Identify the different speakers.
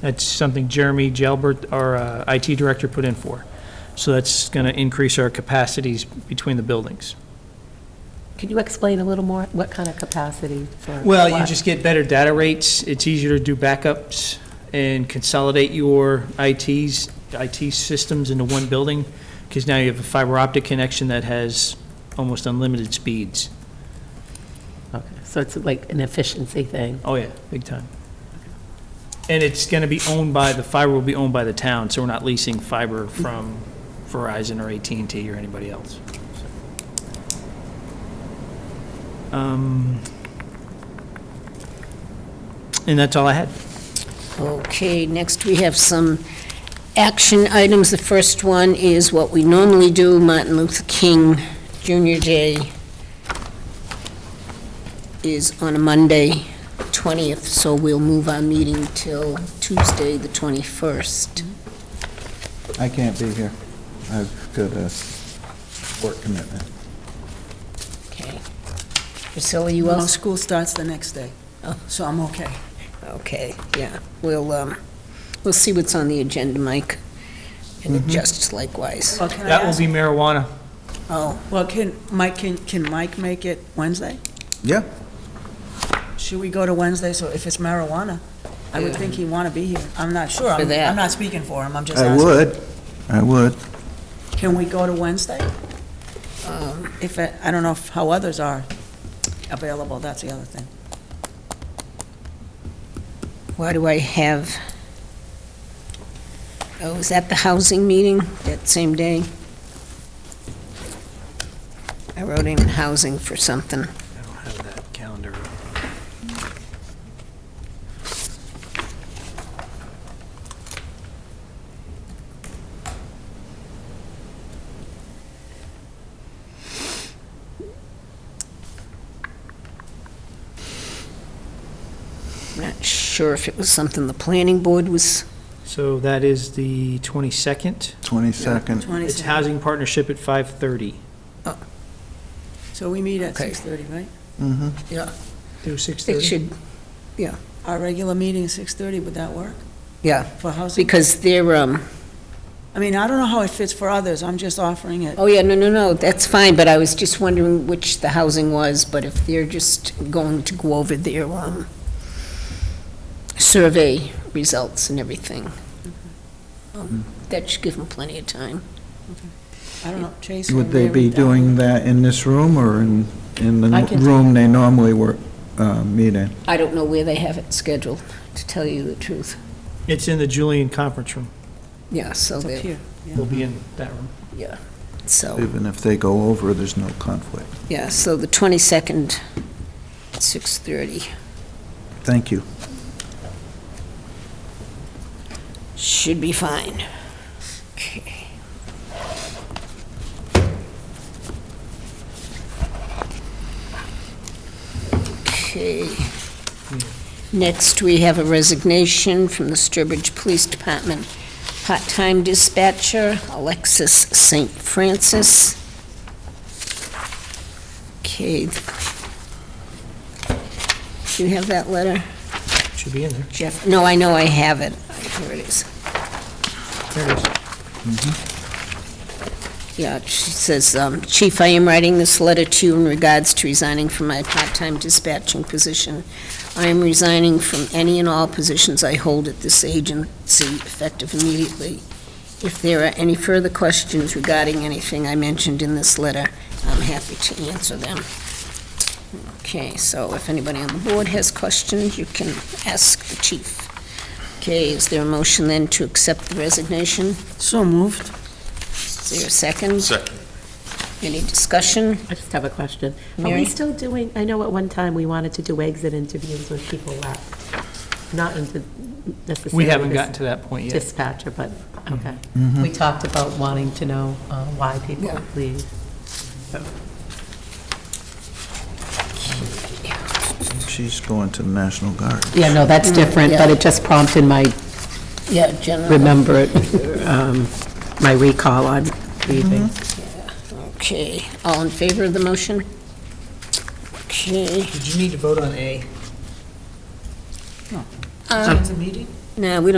Speaker 1: That's something Jeremy Jalbert, our uh, IT director, put in for. So that's going to increase our capacities between the buildings.
Speaker 2: Could you explain a little more, what kind of capacity for?
Speaker 1: Well, you
Speaker 2: what?
Speaker 1: just get better data rates, it's easier to do backups and consolidate your ITs, IT systems into one building, because now you have a fiber optic connection that has almost unlimited speeds.
Speaker 2: Okay, So it's like an efficiency thing.
Speaker 1: Oh, yeah, big time. And it's going to be owned by, the fiber will be owned by the town, so we're not leasing fiber from Verizon or at and T or anybody else. so. Um, And that's all I had.
Speaker 3: Okay, next we have some action items. The first one is what we normally do, Martin Luther King Junior Day is on a Monday, 20th, so we'll move our meeting till Tuesday, the 21st.
Speaker 4: I can't be here. I've got a work commitment.
Speaker 3: Okay. Priscilla, you Oh.
Speaker 5: Well,
Speaker 3: also?
Speaker 5: school starts the next day, so I'm okay.
Speaker 3: Okay, yeah, we'll, um, we'll see what's on the agenda, Mike, and adjust likewise.
Speaker 5: Well, can I
Speaker 1: That will
Speaker 5: ask-
Speaker 1: be marijuana.
Speaker 3: Oh,
Speaker 5: Well, can, Mike, can, can Mike make it Wednesday?
Speaker 4: Yeah.
Speaker 5: Should we go to Wednesday, so if it's marijuana? I would think he'd want to be here. I'm not sure. I'm-
Speaker 3: that.
Speaker 5: I'm not speaking for him, I'm just
Speaker 4: I
Speaker 5: asking.
Speaker 4: would, I would.
Speaker 5: Can we go to Wednesday?
Speaker 3: Uh,
Speaker 5: If, it- I don't know if- how others are available, that's the other thing.
Speaker 3: Why do I have? Oh, was that the housing meeting that same day? I wrote in housing for something.
Speaker 1: I don't have that calendar.
Speaker 3: Not sure if it was something the planning board was,
Speaker 1: So that is the 22nd.
Speaker 4: 22nd.
Speaker 1: It's
Speaker 5: 22nd.
Speaker 1: housing partnership at 5:30
Speaker 5: So we meet at
Speaker 3: Okay.
Speaker 5: 6:30, right?
Speaker 4: Mm-hmm.
Speaker 1: through
Speaker 3: it
Speaker 1: 6:30.
Speaker 3: should,
Speaker 5: Our regular meeting is 6:30, would that work
Speaker 3: yeah,
Speaker 5: for housing?
Speaker 3: because they're, um,
Speaker 5: I mean, I don't know how it fits for others, I'm just offering it.
Speaker 3: oh yeah, no, no, no, that's fine, but I was just wondering which the housing was, but if they're just going to go over their, um, survey results and everything. Um, That should give them plenty of time.
Speaker 5: I don't know, Chase.
Speaker 4: Would
Speaker 5: or
Speaker 4: they
Speaker 5: Mary,
Speaker 4: be
Speaker 5: that would-
Speaker 4: doing that in this room or in, in
Speaker 2: I
Speaker 4: the
Speaker 2: can-
Speaker 4: room they normally work, uh, meet in?
Speaker 3: I don't know where they have it scheduled, to tell you the truth.
Speaker 1: It's in the Julian Conference Room.
Speaker 3: Yeah, so
Speaker 5: It's up
Speaker 3: they,
Speaker 5: here.
Speaker 1: We'll be in that room.
Speaker 3: yeah. So,
Speaker 4: Even if they go over, there's no conflict.
Speaker 3: yeah, so the 22nd, 6:30.
Speaker 4: Thank you.
Speaker 3: Should be fine. Okay. Okay. Next, we have a resignation from the Sturbridge Police Department part-time dispatcher, Alexis St. Francis. Okay. Do you have that letter,
Speaker 1: Should be in there.
Speaker 3: Jeff? No, I know I have it. Here it is.
Speaker 1: There it is.
Speaker 4: Mm-hmm.
Speaker 3: Yeah, she says, um, Chief, I am writing this letter to you in regards to resigning from my part-time dispatching position. I am resigning from any and all positions I hold at this agency effective immediately. If there are any further questions regarding anything I mentioned in this letter, I'm happy to answer them. Okay, so if anybody on the board has questions, you can ask the chief. Okay, is there a motion then to accept the resignation?
Speaker 5: So moved.
Speaker 3: Is there a second? Second. Any discussion?
Speaker 2: I just have a question. Are
Speaker 3: Mary?
Speaker 2: we still doing, I know at one time we wanted to do exit interviews when people left, not into necessarily.
Speaker 1: We haven't
Speaker 2: dis-
Speaker 1: gotten to that point yet. Mm-hmm.
Speaker 2: Dispatcher, but, okay. We talked about wanting to know uh, why people
Speaker 3: Yeah.
Speaker 2: leave.
Speaker 4: She's going to the National Guard.
Speaker 2: Yeah, no, that's different,
Speaker 3: but
Speaker 2: but it just prompted my
Speaker 3: Yeah, general.
Speaker 2: remember, um, my recall on leaving.
Speaker 3: Okay, all in favor of the motion? Okay,
Speaker 1: Did you need to vote on A?
Speaker 5: It's a meeting?
Speaker 3: uh,
Speaker 1: Uh,
Speaker 3: now, we don't